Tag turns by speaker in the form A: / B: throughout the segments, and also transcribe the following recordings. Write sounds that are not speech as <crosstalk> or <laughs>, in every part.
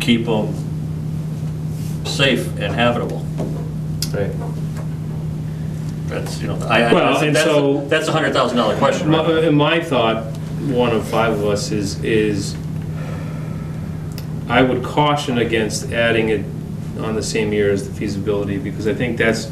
A: keep them safe and habitable.
B: Right.
A: That's, you know, I, I-
B: Well, and
A: that's,
B: so-
A: that's a hundred thousand dollar question,
B: My,
A: right?
B: uh, my thought, one of five of us, is, is I would caution against adding it on the same year as the feasibility, because I think that's,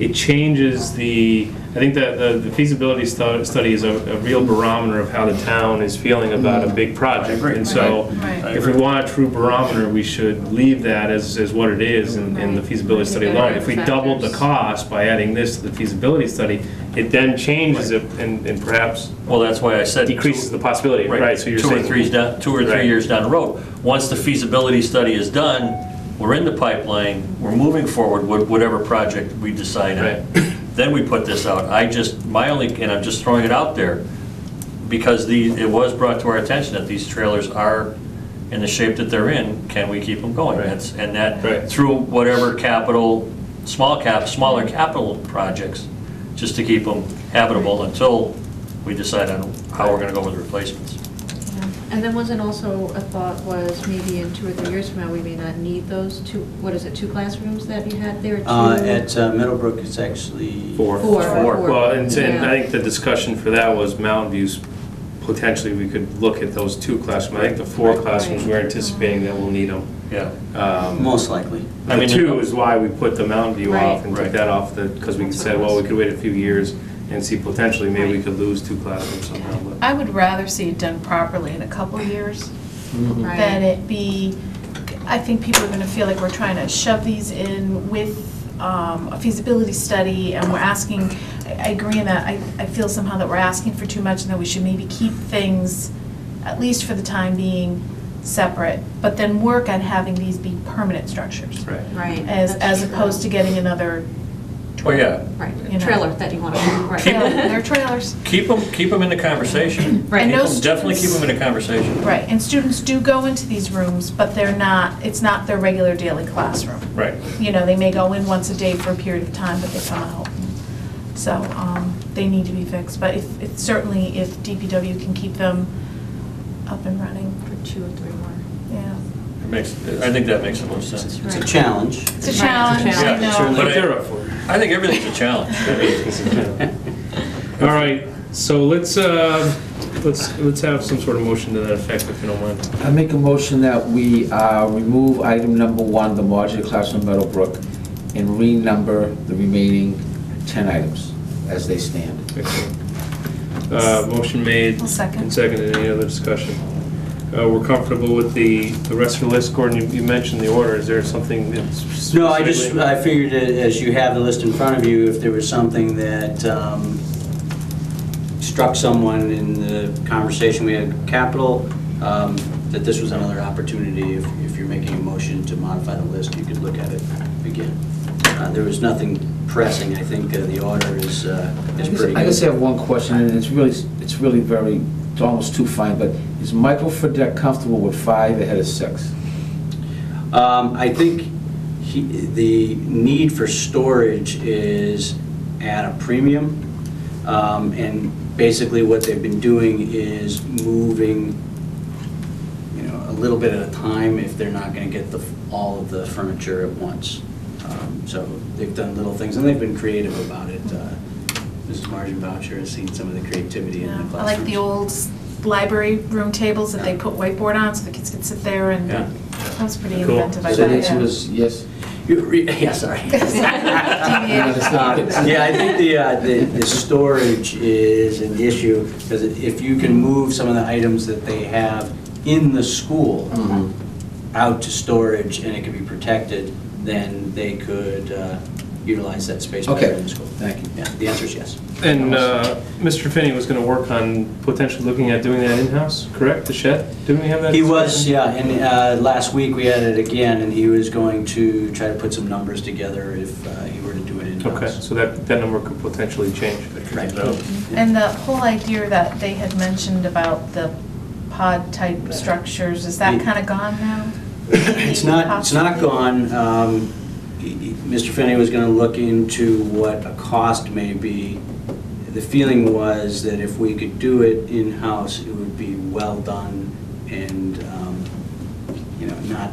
B: it changes the, I think that the the feasibility stu- study is a, a real barometer of how the town is feeling about a big project.
A: agree.
B: And so,
C: Right,
A: right.
B: if we want a true barometer, we should leave that as, as what it is in, in the
C: Right.
B: feasibility study alone. If we doubled the
C: Factors.
B: cost by adding this to the feasibility study, it then changes it and, and perhaps
A: Well, that's why I said. two-
B: decreases the possibility, right? So you're
A: Two or
B: saying
A: three's down, two or three
B: Right.
A: years down the road. Once the feasibility study is done, we're in the pipeline, we're moving forward with whatever project we decide on.
B: Right.
A: <coughs> Then we put this out. I just, my only, and I'm just throwing it out there, because the, it was brought to our attention that these trailers are in the shape that they're in, can we keep them going?
B: Right.
A: That's, and
B: Right.
A: that, through whatever capital, small cap, smaller capital projects, just to keep them habitable until we decide on how we're gonna go with the replacements.
C: And then wasn't also a thought was maybe in two or three years from now, we may not need those two, what is it, two classrooms that you had there? Two-
D: Uh, At uh, Meadowbrook, it's actually.
B: four.
C: Four.
A: Four.
B: Well, and, and I
C: Yeah.
B: think the discussion for that was Mountain View's, potentially we could look at those two classrooms. I think the four classrooms, we're anticipating that we'll need them.
A: Yeah.
B: Um,
D: Most likely.
A: I
B: The
A: mean,
B: two is why we put the Mountain View off
C: Right.
B: and took
A: Right.
B: that off, because we
C: That's
B: said,
C: what it
B: well, we
C: was.
B: could wait a few years and see potentially, maybe we
C: Right.
B: could lose two classrooms somehow. but-
E: I would rather see it done properly in a couple of years
C: Right.
E: than it be, I think people are gonna feel like we're trying to shove these in with um, a feasibility study and we're asking, I I agree in that, I, I feel somehow that we're asking for too much and that we should maybe keep things, at least for the time being, separate, but then work on having these be permanent structures.
B: Right.
C: Right.
E: As,
C: that's
E: as opposed to
C: true.
E: getting another,
A: Well, yeah,
E: you
C: Right,
E: know.
C: trailer that you want to, right.
A: Keep
E: trailer.
C: <laughs>
E: they're trailers.
A: keep them, keep 'em in the conversation.
C: Right.
A: Keep
C: And
A: 'em-
E: those
A: Definitely keep
E: students-
A: them in the conversation.
E: Right, and students do go into these rooms, but they're not, it's not their regular daily classroom.
B: Right.
E: You know, they may go in once a day for a period of time, but they come out. So, um, they need to be fixed, but if, if- certainly if DPW can keep them up and running,
C: For two or three more.
E: yeah.
A: It makes, I think that makes the most sense.
D: It's a
C: Right.
D: challenge.
E: It's a challenge,
C: Right, it's a
E: I
C: challenge.
E: know.
A: But I-
B: But they're up for it.
A: I think everything's a challenge.
B: <laughs>
A: <laughs>
B: All right, so let's, uh, let's, let's have some sort of motion to that effect, if you don't mind.
F: I make a motion that we uh, remove item number one, the modular classroom Meadowbrook, and renumber the remaining 10 items as they stand.
B: Excellent. Uh, Motion made.
E: I'll second.
B: And seconded, any other discussion? Uh, We're comfortable with the, the rest of the list, Gordon, you you mentioned the order, is there something that's?
D: No, I just,
B: specifically-
D: I figured that as you have the list in front of you, if there was something that um, struck someone in the conversation we had capital, um, that this was another opportunity, if if you're making a motion to modify the list, you could look at it again. Uh, There was nothing pressing, I think uh, the order is, uh, is pretty good.
F: I just have one question, and it's really, it's really very, it's almost too fine, but is Michael Fredette comfortable with five ahead of six?
D: Um, I think he, the need for storage is at a premium. Um, and basically what they've been doing is moving, you know, a little bit at a time if they're not gonna get the, all of the furniture at once. Um, So they've done little things and they've been creative about it. Uh, Mrs. Margin Boucher has seen some of the creativity in the
E: Yeah,
D: classrooms.
E: I like the old s- library room tables that they
D: Yeah.
E: put whiteboard on, so the kids could sit there and,
D: Yeah.
E: that was pretty
B: Cool.
E: inventive, I
F: So
E: thought.
F: the answer
E: yeah.
F: was yes?
D: You re- <laughs> Yeah,
F: <laughs>
D: sorry.
F: Yeah.
D: Yeah, I think the, uh, the, the storage is an issue, because if you can move some of the items that they have in the school
F: Mhm.
D: out to storage and it can be protected, then they could uh, utilize that space better
F: Okay,
D: in the school.
F: thank you.
D: Yeah, the answer is yes.
B: And uh, Mr. Finney was gonna work on potentially looking at doing that in-house, correct, the shed? Didn't we have that?
D: He was,
B: discussion?
D: yeah, and uh, last week we had it again, and he was going to try to put some numbers together if uh, he were to do it
B: Okay,
D: in-house.
B: so that, that number could potentially change. Uh,
D: Right.
E: And the whole idea that they had mentioned about the pod-type structures, is that kind of gone now?
D: <coughs> It's not, it's not gone. Um, e- e- Mr. Finney was going to look into what a cost may be. The feeling was that if we could do it in-house, it would be well done and um,